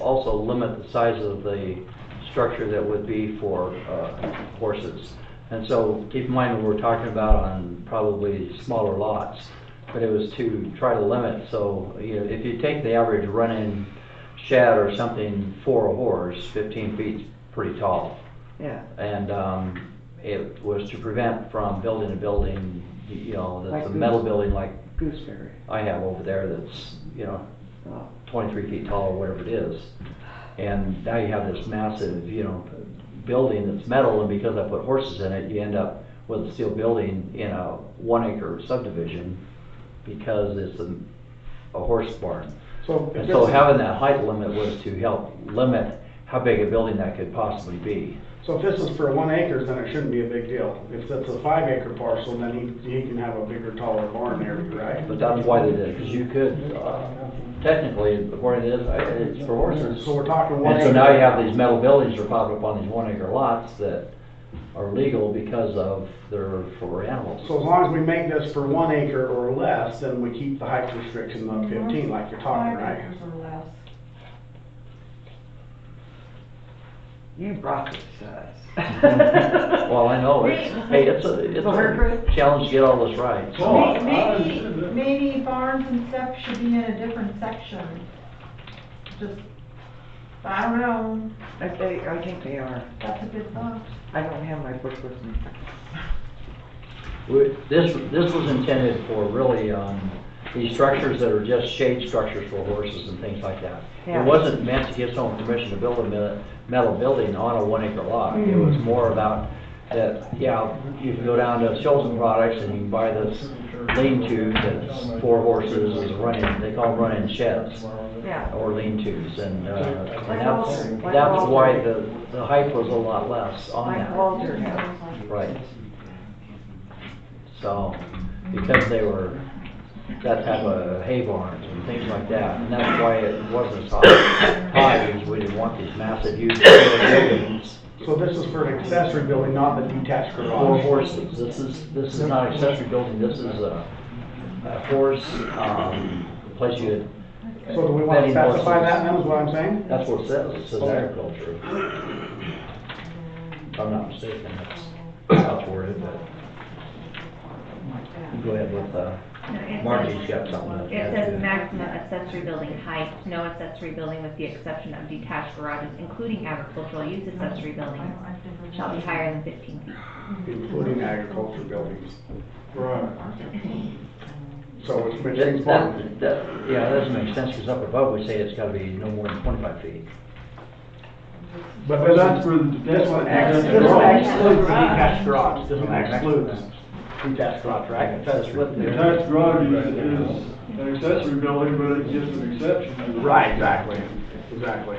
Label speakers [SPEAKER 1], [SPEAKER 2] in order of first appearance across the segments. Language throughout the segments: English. [SPEAKER 1] also limit the size of the structure that would be for uh, horses. And so keep in mind, we're talking about on probably smaller lots, but it was to try to limit, so, you know, if you take the average run-in shed or something for a horse, fifteen feet's pretty tall.
[SPEAKER 2] Yeah,
[SPEAKER 1] And um, it was to prevent from building a building, you know, that's a
[SPEAKER 2] Like
[SPEAKER 1] metal
[SPEAKER 2] this.
[SPEAKER 1] building like
[SPEAKER 2] gooseberry.
[SPEAKER 1] I have over there that's, you know,
[SPEAKER 2] Oh,
[SPEAKER 1] 23 feet tall or whatever it is. And now you have this massive, you know, building that's metal, and because I put horses in it, you end up with a steel building in a one acre subdivision because it's a, a horse barn.
[SPEAKER 3] So if
[SPEAKER 1] And so
[SPEAKER 3] it's-
[SPEAKER 1] having that height limit was to help limit how big a building that could possibly be.
[SPEAKER 3] So if this is for one acre, then it shouldn't be a big deal. If it's a five acre parcel, then he, he can have a bigger, taller barn there, right?
[SPEAKER 1] But that's why they did it, because you could, uh, technically, according to this, I- it's for horses.
[SPEAKER 3] So we're talking one
[SPEAKER 1] And
[SPEAKER 3] acre.
[SPEAKER 1] so now you have these metal buildings that are popping up on these one acre lots that are legal because of they're for animals.
[SPEAKER 3] So as long as we make this for one acre or less, then we keep the height restriction of fifteen like you're talking,
[SPEAKER 4] Five
[SPEAKER 3] right?
[SPEAKER 4] acres or less.
[SPEAKER 2] you brought this to us.
[SPEAKER 1] Well, I know, it's, hey, it's a, it's a challenge to get all this right. so-
[SPEAKER 3] Oh, I-
[SPEAKER 4] May- Maybe, maybe barns and stuff should be in a different section. Just, I don't know,
[SPEAKER 2] I think, I think they are.
[SPEAKER 4] that's a good thought.
[SPEAKER 2] I don't have my book with me.
[SPEAKER 1] We- This, this was intended for really, um, these structures that are just shade structures for horses and things like that. It
[SPEAKER 2] Yeah.
[SPEAKER 1] wasn't meant to give someone permission to build a me- metal building on a one acre lot.
[SPEAKER 2] Mm-hmm.
[SPEAKER 1] It was more about that, yeah, you can go down to Chilton Products and you can buy this lean-to that's for horses, is running, they call them running sheds
[SPEAKER 2] Yeah.
[SPEAKER 1] or lean-tos. And, uh,
[SPEAKER 2] Like
[SPEAKER 1] and that's,
[SPEAKER 2] Walter- like
[SPEAKER 1] that's
[SPEAKER 2] Walter.
[SPEAKER 1] why the, the height was a lot less on
[SPEAKER 2] Like
[SPEAKER 1] that.
[SPEAKER 2] Walter has.
[SPEAKER 1] Right. So, because they were that type of hay barns and things like that, and that's why it wasn't as high, high, because we didn't want these massive huge buildings
[SPEAKER 3] So this is for an accessory building, not the detached
[SPEAKER 1] for
[SPEAKER 3] garage.
[SPEAKER 1] horses. This is, this is not accessory building, this is a, a horse, um, place you,
[SPEAKER 3] So do we want to
[SPEAKER 1] Betting horses.
[SPEAKER 3] specify that then, is what I'm saying?
[SPEAKER 1] that's what it says, it says
[SPEAKER 3] Okay.
[SPEAKER 1] agriculture. If I'm not mistaken, that's, that's worded, but go ahead with, uh,
[SPEAKER 5] No, it
[SPEAKER 1] Margie's
[SPEAKER 5] says-
[SPEAKER 1] got something. to
[SPEAKER 5] It
[SPEAKER 1] add to
[SPEAKER 5] says maximum accessory building height, no accessory building with the exception of detached garages, including agricultural use accessory buildings, shall be higher than fifteen feet.
[SPEAKER 3] Including agriculture buildings. Right. So it's which
[SPEAKER 1] That-
[SPEAKER 3] means barn.
[SPEAKER 1] that- that- Yeah, that doesn't make sense, because up above, we say it's gotta be no more than twenty-five feet.
[SPEAKER 3] But
[SPEAKER 6] But that's for the.
[SPEAKER 3] This one ex- this one excludes the detached garage, this one excludes detached garage, right? That's what
[SPEAKER 6] The
[SPEAKER 3] they're-
[SPEAKER 6] attached garage is, is an accessory building, but it gives an exception to the.
[SPEAKER 3] Right, exactly, exactly.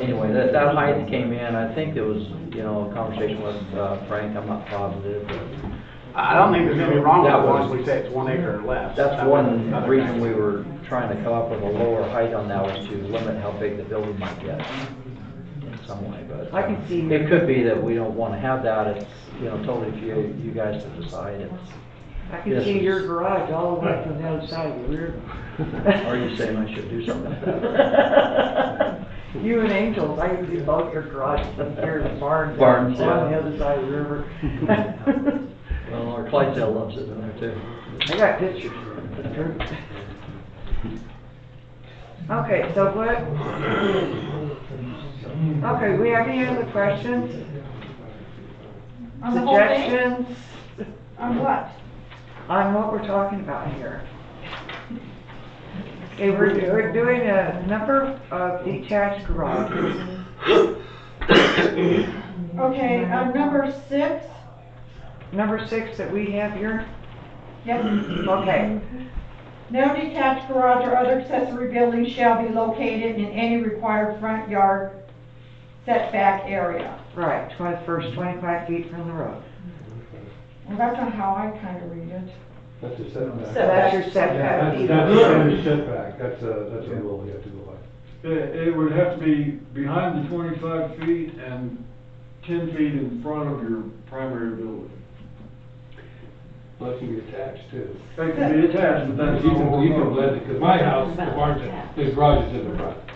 [SPEAKER 1] Anyway, that, that height came in, I think there was, you know, a conversation with uh, Frank, I'm not positive, but
[SPEAKER 3] I don't think there's anything wrong with
[SPEAKER 1] That
[SPEAKER 3] it once
[SPEAKER 1] was-
[SPEAKER 3] we say it's one acre or less.
[SPEAKER 1] that's
[SPEAKER 3] That was
[SPEAKER 1] one
[SPEAKER 3] another
[SPEAKER 1] reason
[SPEAKER 3] thing.
[SPEAKER 1] we were trying to come up with a lower height on that, was to limit how big the building might get in some way, but.
[SPEAKER 2] I can see-
[SPEAKER 1] It could be that we don't wanna have that, it's, you know, totally for you, you guys to decide, it's,
[SPEAKER 2] I
[SPEAKER 1] Yes.
[SPEAKER 2] can see your garage all the way from the other side of the rear.
[SPEAKER 1] are you saying I should do something?
[SPEAKER 2] You and Angel, I can see both your garage from here to barn.
[SPEAKER 1] Barns, yeah.
[SPEAKER 2] On the other side of the river.
[SPEAKER 1] Well, our Clydesdale loves it in there too.
[SPEAKER 2] I got pictures. Okay, so what? Okay, we have any other questions,
[SPEAKER 4] On the whole thing?
[SPEAKER 2] suggestions
[SPEAKER 4] On what?
[SPEAKER 2] on what we're talking about here? Okay, we're, we're doing a number of detached garages.
[SPEAKER 4] Okay, uh, number six,
[SPEAKER 2] Number six that we have here,
[SPEAKER 4] yes,
[SPEAKER 2] okay,
[SPEAKER 4] no detached garage or other accessory building shall be located in any required front yard setback area.
[SPEAKER 2] right, twenty, first twenty-five feet from the road.
[SPEAKER 4] Well, that's not how I kind of read it.
[SPEAKER 6] That's a setback.
[SPEAKER 2] So that's your setback.
[SPEAKER 7] That's, that's a standard setback, that's a, that's a rule we have to go by.
[SPEAKER 6] It, it would have to be behind the twenty-five feet and ten feet in front of your primary building.
[SPEAKER 7] Unless you get attached too.
[SPEAKER 6] It can be attached, but that's.
[SPEAKER 7] You can, you can blend it, 'cause my house, the barn, the garage is in the front.